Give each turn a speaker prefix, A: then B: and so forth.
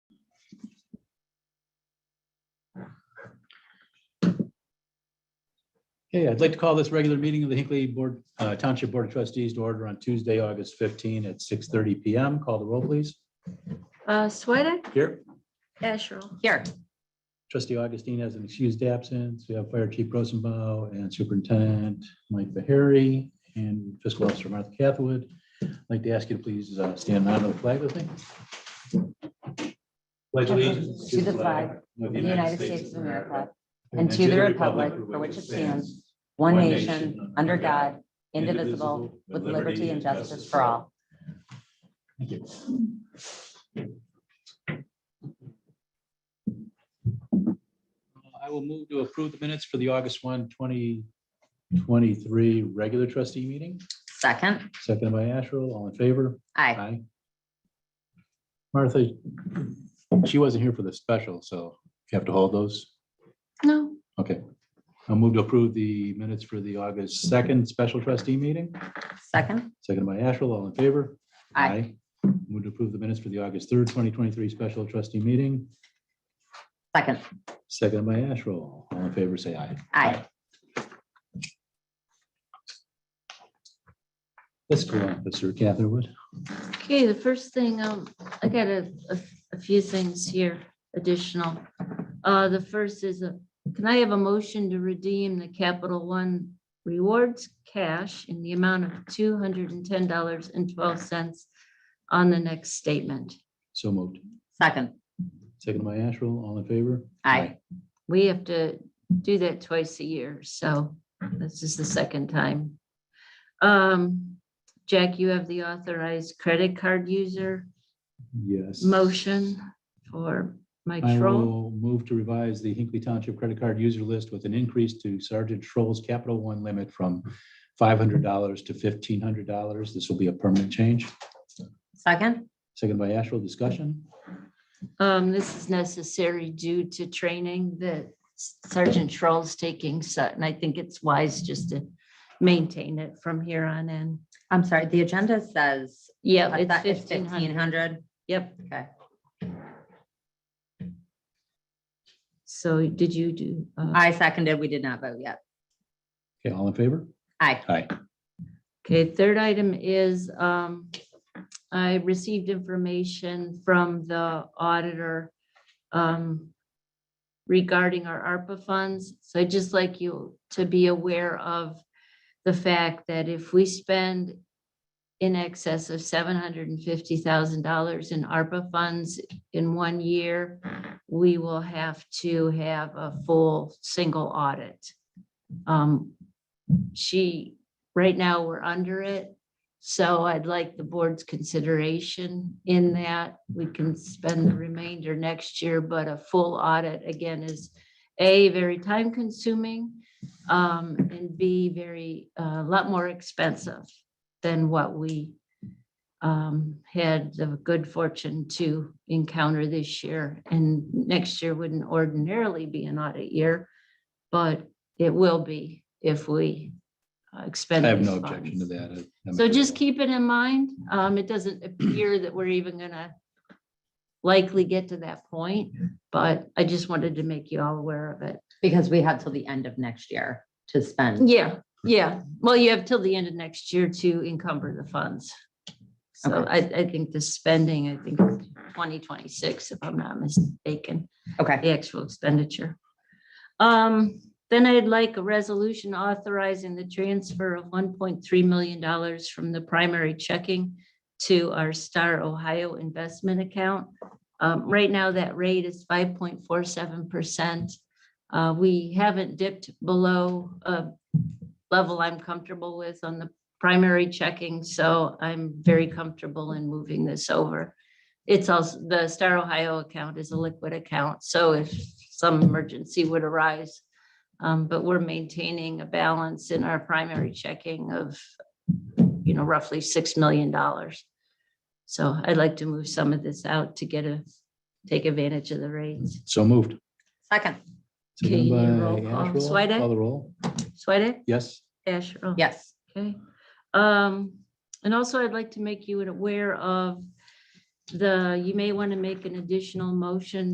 A: Okay, I'd like to call this regular meeting of the Hinkley Board, uh, Township Board of Trustees to order on Tuesday, August 15 at 6:30 PM. Call the roll, please.
B: Uh, Swedek,
A: Here,
B: Asherle,
C: Here,
A: trustee Augustine has an excused absence. We have Fire Chief Rosenbaum and Superintendent Mike Bahari and Fiscal Officer Martha Cathwood. I'd like to ask you to please uh, stand on the flag with me. Pledge allegiance to the flag of the United States of America and to the republic for which it stands,
C: one nation, under God, indivisible, with liberty and justice for all.
A: Thank you. Uh, I will move to approve the minutes for the August 1, 2023 regular trustee meeting,
C: Second,
A: seconded by Asherle, all in favor?
C: aye.
A: Aye. Martha, she wasn't here for the special, so you have to hold those.
B: no,
A: Okay. I'll move to approve the minutes for the August 2nd special trustee meeting,
C: Second,
A: seconded by Asherle, all in favor?
C: aye.
A: Move to approve the minutes for the August third, twenty twenty-three special trustee meeting,
C: Second,
A: seconded by Asherle. All in favor, say aye.
C: aye.
A: Fiscal Officer Catherwood.
B: okay, the first thing, um, I got a, a, a few things here additional. Uh, the first is, a can I have a motion to redeem the Capital One rewards cash in the amount of two hundred and ten dollars and twelve cents on the next statement?
A: So moved.
C: Second,
A: Seconded by Asherle. All in favor?
C: aye.
B: We have to do that twice a year, so this is the second time. Um, Jack, you have the authorized credit card user
A: Yes.
B: motion for Mike
A: I
B: Schroll.
A: will move to revise the Hinkley Township credit card user list with an increase to Sergeant Troll's Capital One limit from five hundred dollars to fifteen hundred dollars. This will be a permanent change.
C: Second,
A: Seconded by Asherle. Discussion?
B: Um, this is necessary due to training that Sergeant Schroll's taking Sutton. I think it's wise just to maintain it from here on in.
C: I'm sorry, the agenda says
B: Yeah,
C: I
B: it's
C: thought it's
B: fifteen hundred.
C: fifteen hundred.
B: Yep.
C: Okay.
B: So did you do? uh,
C: I seconded, we did not vote yet.
A: Okay, all in favor?
C: Aye.
A: Aye.
B: Okay, third item is, um, I received information from the auditor, um, regarding our ARPA funds. So I'd just like you to be aware of the fact that if we spend in excess of seven hundred and fifty thousand dollars in ARPA funds in one year, we will have to have a full single audit. Um, she Right now, we're under it. So I'd like the board's consideration in that. We can spend the remainder next year, but a full audit again is A, very time consuming, um, and B, very, uh, a lot more expensive than what we um, had the good fortune to encounter this year. And next year wouldn't ordinarily be an audit year, but it will be if we uh,
A: I
B: expend.
A: have
B: these
A: no objection to
B: funds.
A: that. I'm-
B: So just keep it in mind. Um, it doesn't appear that we're even gonna likely get to that point, but I just wanted to make you all aware of it.
C: Because we have till the end of next year to spend.
B: Yeah, yeah. Well, you have till the end of next year to encumber the funds. So I, I think the spending, I think twenty twenty-six, if I'm not mistaken,
C: Okay,
B: the actual expenditure. Um, then I'd like a resolution authorizing the transfer of one point three million dollars from the primary checking to our Star Ohio investment account. Um, right now, that rate is five point four seven percent. Uh, we haven't dipped below a level I'm comfortable with on the primary checking, so I'm very comfortable in moving this over. It's also, the Star Ohio account is a liquid account, so if some emergency would arise. Um, but we're maintaining a balance in our primary checking of, you know, roughly six million dollars. So I'd like to move some of this out to get a, take advantage of the rates.
A: So moved.
C: second,
B: Okay, you need
A: Seconded
B: a roll
A: by
B: call.
A: Asherle.
B: Swedek?
A: Call the roll.
B: Sweattick?
A: Yes.
B: Asherle?
C: yes.
B: Okay, oh. um, and also I'd like to make you aware of the, you may want to make an additional motion